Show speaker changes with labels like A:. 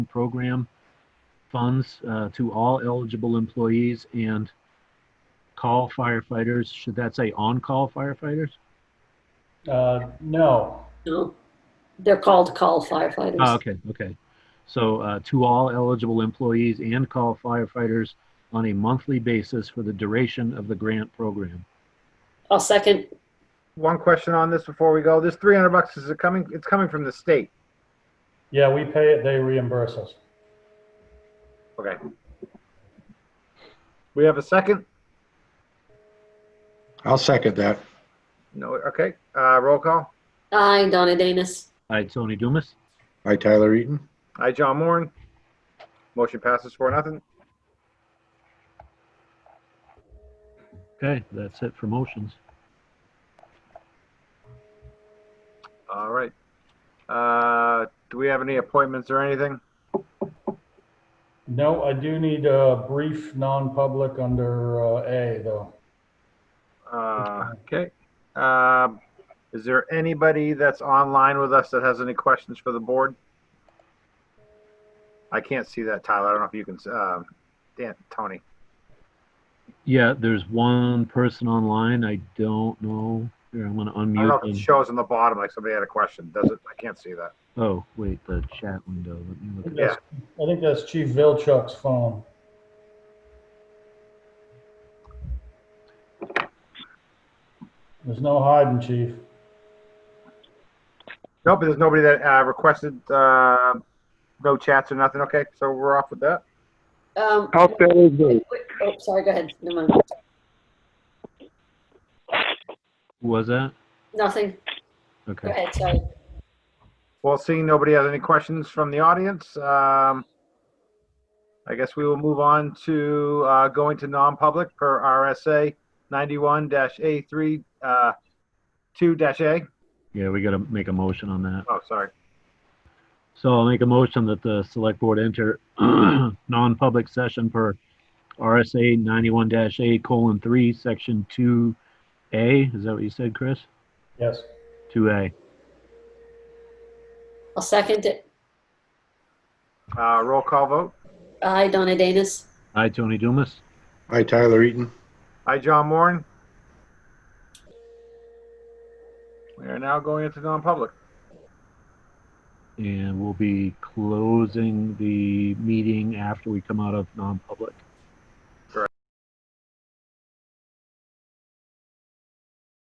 A: program funds uh, to all eligible employees and call firefighters, should that say on-call firefighters?
B: Uh, no,
C: No, they're called call
A: Ah,
C: firefighters.
A: okay, okay. So, uh, to all eligible employees and call firefighters on a monthly basis for the duration of the grant program.
C: I'll Oh, second.
D: One question on this before we go. This 300 bucks, is it coming, it's coming from the state?
B: yeah, we pay it, they reimburse us.
D: Okay. We have a second?
E: I'll second that.
D: No, okay, uh, roll call.
C: Aye, Donna Danus.
A: Hi, Tony Dumas.
E: Hi, Tyler Eaton.
D: Aye, John Moran. Motion passes for nothing.
A: Okay, that's it for motions.
D: All right. Uh, do we have any appointments or anything?
B: No, I do need a brief non-public under uh, A though.
D: Uh, okay. Um, is there anybody that's online with us that has any questions for the board? I can't see that, Tyler. I don't know if you can, s- um, Dan, Tony.
A: Yeah, there's one person online. I don't know. Here, I'm gonna
D: I don't know
A: unmute
D: if it
A: them.
D: shows on the bottom, like somebody had a question. Does it? I can't see that.
A: Oh, wait, the chat window. Let me
B: I
A: look.
B: think that's- I think that's Chief Vilchuk's phone. There's no hiding, chief.
D: Nope, there's nobody that uh, requested uh, no chats or nothing. Okay, so we're off with that.
C: Um,
F: How fair is
C: wait,
F: it?
C: wait, oh, sorry, go ahead. Never mind.
A: Who was that?
C: Nothing. Go
A: Okay.
C: ahead, sorry.
D: Well, seeing nobody has any questions from the audience, um, I guess we will move on to uh, going to non-public per RSA 91-A3, uh, 2-A.
A: Yeah, we gotta make a motion on that.
D: Oh, sorry.
A: So I'll make a motion that the select board enter non-public session per RSA ninety-one dash A colon three, section two A. Is that what you said, Chris?
B: Yes.
A: Two A.
C: I'll second it.
D: Uh, Roll call vote.
C: Aye, Donna Danus.
A: Hi, Tony Dumas.
E: Hi, Tyler Eaton.
D: Hi, John Moran. We are now going into non-public.
A: And we'll be closing the meeting after we come out of non-public.